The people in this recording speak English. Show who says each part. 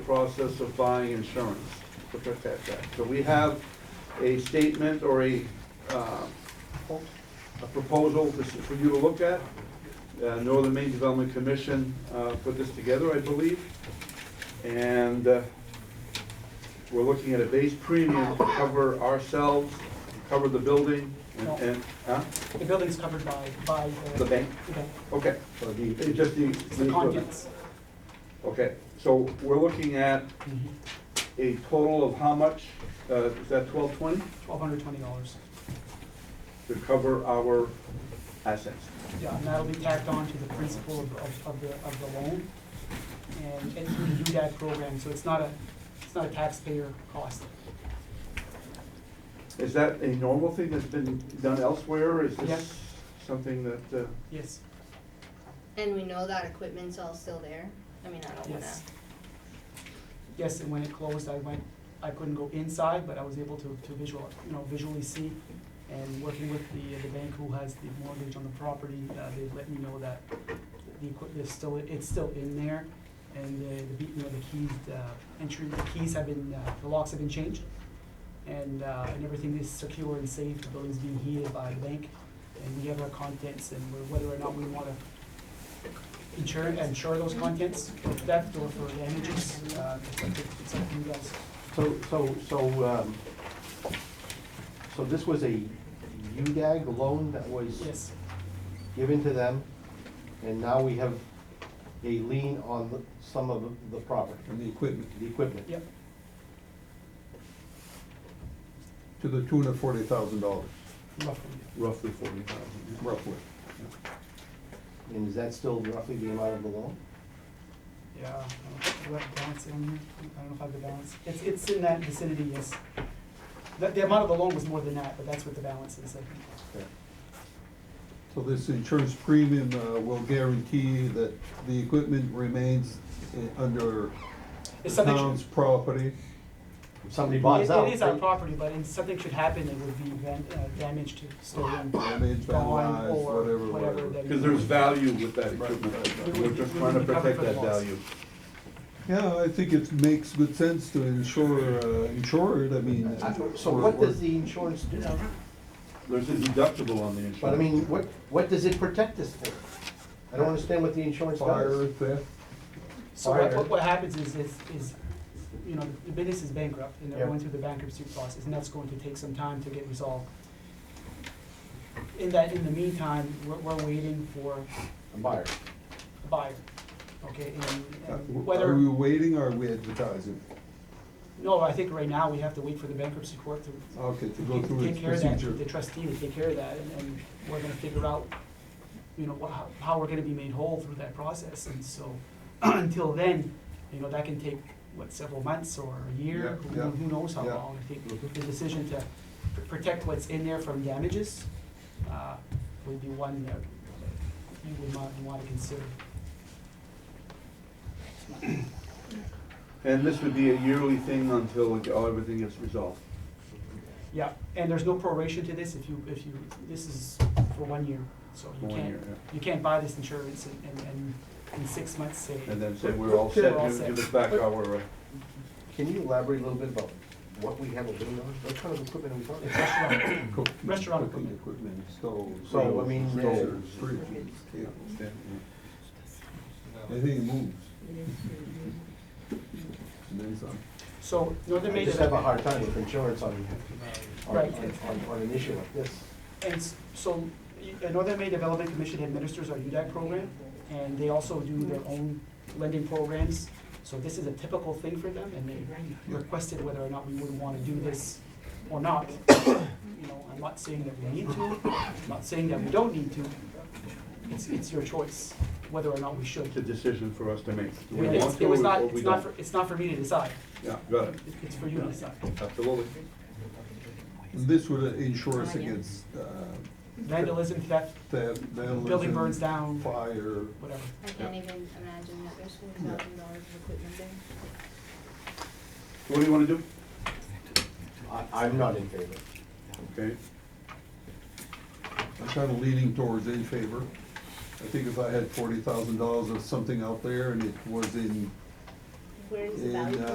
Speaker 1: process of buying insurance to protect that. So we have a statement or a, uh, a proposal this is for you to look at. Uh, Northern Maine Development Commission uh, put this together, I believe. And uh, we're looking at a base premium to cover ourselves, cover the building and, and, huh?
Speaker 2: The building's covered by, by
Speaker 1: The
Speaker 2: the.
Speaker 1: bank?
Speaker 2: Okay,
Speaker 1: Okay,
Speaker 3: So the,
Speaker 1: It's just the.
Speaker 2: it's the contents.
Speaker 1: Okay, so we're looking at
Speaker 2: Mm-hmm.
Speaker 1: a total of how much? Uh, Is that twelve twenty?
Speaker 2: Twelve hundred twenty dollars.
Speaker 1: To cover our assets.
Speaker 2: Yeah, and that'll be tacked on to the principal of, of, of the, of the loan. And it's through the UDAG program, so it's not a, it's not a taxpayer cost.
Speaker 1: Is that a normal thing that's been done elsewhere? or Is this
Speaker 2: Yes.
Speaker 1: something that, uh,
Speaker 2: Yes,
Speaker 4: And we know that equipment's all still there? I mean, I don't wanna,
Speaker 2: yes. Yes, and when it closed, I went, I couldn't go inside, but I was able to, to visual, you know, visually see. And working with the, the bank who has the mortgage on the property, uh, they let me know that the equipment is still, it's still in there. And the, the, be- you know, the keys, the entry, the keys have been, uh, the locks have been changed. And, uh, and everything is secure and safe, the building's being heated by the bank. And we have our contents and we're- whether or not we wanna insure, insure those contents for theft or for damages, uh, it's up to, it's up to you guys.
Speaker 3: so, so, so, um, so this was a UDAG loan that was
Speaker 2: Yes,
Speaker 3: given to them, and now we have a lien on the- some of the property,
Speaker 5: and the equipment
Speaker 3: the equipment.
Speaker 2: yep,
Speaker 5: to the tune of forty thousand dollars,
Speaker 2: roughly.
Speaker 1: roughly forty thousand?
Speaker 5: roughly.
Speaker 3: And is that still roughly the amount of the loan?
Speaker 2: Yeah, I don't know, do I have the balance on here? I don't know if I have the balance. It's, it's in that vicinity, yes. The, the amount of the loan was more than that, but that's what the balance is, I think.
Speaker 5: So this insurance premium uh, will guarantee that the equipment remains i- under the
Speaker 2: If something
Speaker 5: town's
Speaker 2: should,
Speaker 5: property.
Speaker 3: If somebody
Speaker 2: it
Speaker 3: buys out.
Speaker 2: it is our property, but if something should happen, it would be van, uh, damage to stolen,
Speaker 5: Damage,
Speaker 2: gone,
Speaker 5: vandalized,
Speaker 2: or
Speaker 5: whatever,
Speaker 2: whatever.
Speaker 5: whatever.
Speaker 2: that-
Speaker 1: Because there's value with that
Speaker 2: right.
Speaker 1: equipment. We're just trying to
Speaker 2: We would be covered
Speaker 1: protect
Speaker 2: for the
Speaker 1: that
Speaker 2: loss.
Speaker 1: value.
Speaker 5: Yeah, I think it makes good sense to insure, uh, insure it, I mean.
Speaker 3: I-
Speaker 5: uh,
Speaker 3: So
Speaker 5: we're-
Speaker 3: what
Speaker 5: we're-
Speaker 3: does the insurance do?
Speaker 1: There's a deductible on the insurance.
Speaker 3: But I mean, what, what does it protect us for? I don't understand what the insurance
Speaker 5: Fire,
Speaker 3: does.
Speaker 5: theft,
Speaker 2: So what,
Speaker 3: Fire.
Speaker 2: what, what happens is, is, is, you know, the business is bankrupt and they're
Speaker 3: Yeah.
Speaker 2: going through the bankruptcy process and that's going to take some time to get resolved. In that, in the meantime, we're, we're waiting for
Speaker 3: A buyer.
Speaker 2: a buyer, okay, and-
Speaker 5: Uh,
Speaker 2: and
Speaker 5: are we
Speaker 2: whether,
Speaker 5: waiting or are we advertising?
Speaker 2: no, I think right now we have to wait for the bankruptcy court to
Speaker 5: Okay, to go
Speaker 2: to
Speaker 5: through
Speaker 2: take
Speaker 5: its
Speaker 2: care of that, the
Speaker 5: procedure.
Speaker 2: trustee to take care of that and, and we're gonna figure out, you know, wha- how, how we're gonna be made whole through that process, and so, until then, you know, that can take, what, several months or a year?
Speaker 5: Yeah,
Speaker 2: Who-
Speaker 5: yeah,
Speaker 2: Who knows how
Speaker 5: yeah.
Speaker 2: long, I think
Speaker 5: Mhm.
Speaker 2: the decision to pr- protect what's in there from damages, uh, would be one that you would want, wanna consider.
Speaker 1: And this would be a yearly thing until it- oh, everything gets resolved.
Speaker 2: Yeah, and there's no proration to this if you, if you, this is for one year, so
Speaker 1: For
Speaker 2: you
Speaker 1: one year,
Speaker 2: can't, you can't buy this insurance and, and, and in six months, say.
Speaker 1: And then say, we're all
Speaker 2: We're
Speaker 1: set,
Speaker 2: all
Speaker 1: give give
Speaker 2: set.
Speaker 1: us back our, uh,
Speaker 3: Can you elaborate a little bit about what we have a lien on? What kind of equipment are we talking about?
Speaker 2: Restaurant,
Speaker 5: Cook-
Speaker 2: Restaurant
Speaker 5: Cooking
Speaker 2: equipment.
Speaker 5: equipment, stoves.
Speaker 3: So, I mean, uh,
Speaker 5: Stoves, fridges, tables, anything that moves. And then some.
Speaker 2: so Northern
Speaker 3: I
Speaker 2: Maine.
Speaker 3: just have a hard time with insurance on, on,
Speaker 2: Right.
Speaker 3: on, on- on an issue like this.
Speaker 2: And s- so, y- uh, Northern Maine Development Commission administers our UDAC program, and they also do their own lending programs. So this is a typical thing for them, and they requested whether or not we would wanna do this or not. You know, I'm not saying that we need to, I'm not saying that we don't need to. It's, it's your choice, whether or not we should.
Speaker 1: it's a decision for us to make. Do we
Speaker 2: It's-
Speaker 1: want to
Speaker 2: It was
Speaker 1: or-
Speaker 2: not,
Speaker 1: or we
Speaker 2: it's not,
Speaker 1: don't?
Speaker 2: for- it's not for me to decide,
Speaker 1: Yeah, got it,
Speaker 2: It- it's for you to decide.
Speaker 1: absolutely.
Speaker 5: And This would insure us against uh,
Speaker 2: Vandalism, theft,
Speaker 5: theft, vandalism.
Speaker 2: building burns down.
Speaker 5: Fire.
Speaker 2: whatever.
Speaker 4: I can't even imagine that there's forty thousand dollars of equipment there.
Speaker 1: So What do you wanna do?
Speaker 3: I, I'm not in favor.
Speaker 1: Okay,
Speaker 5: I'm kind of leaning towards in favor. I think if I had forty thousand dollars of something out there and it was in
Speaker 4: Where is the
Speaker 5: And,
Speaker 4: value?
Speaker 5: uh,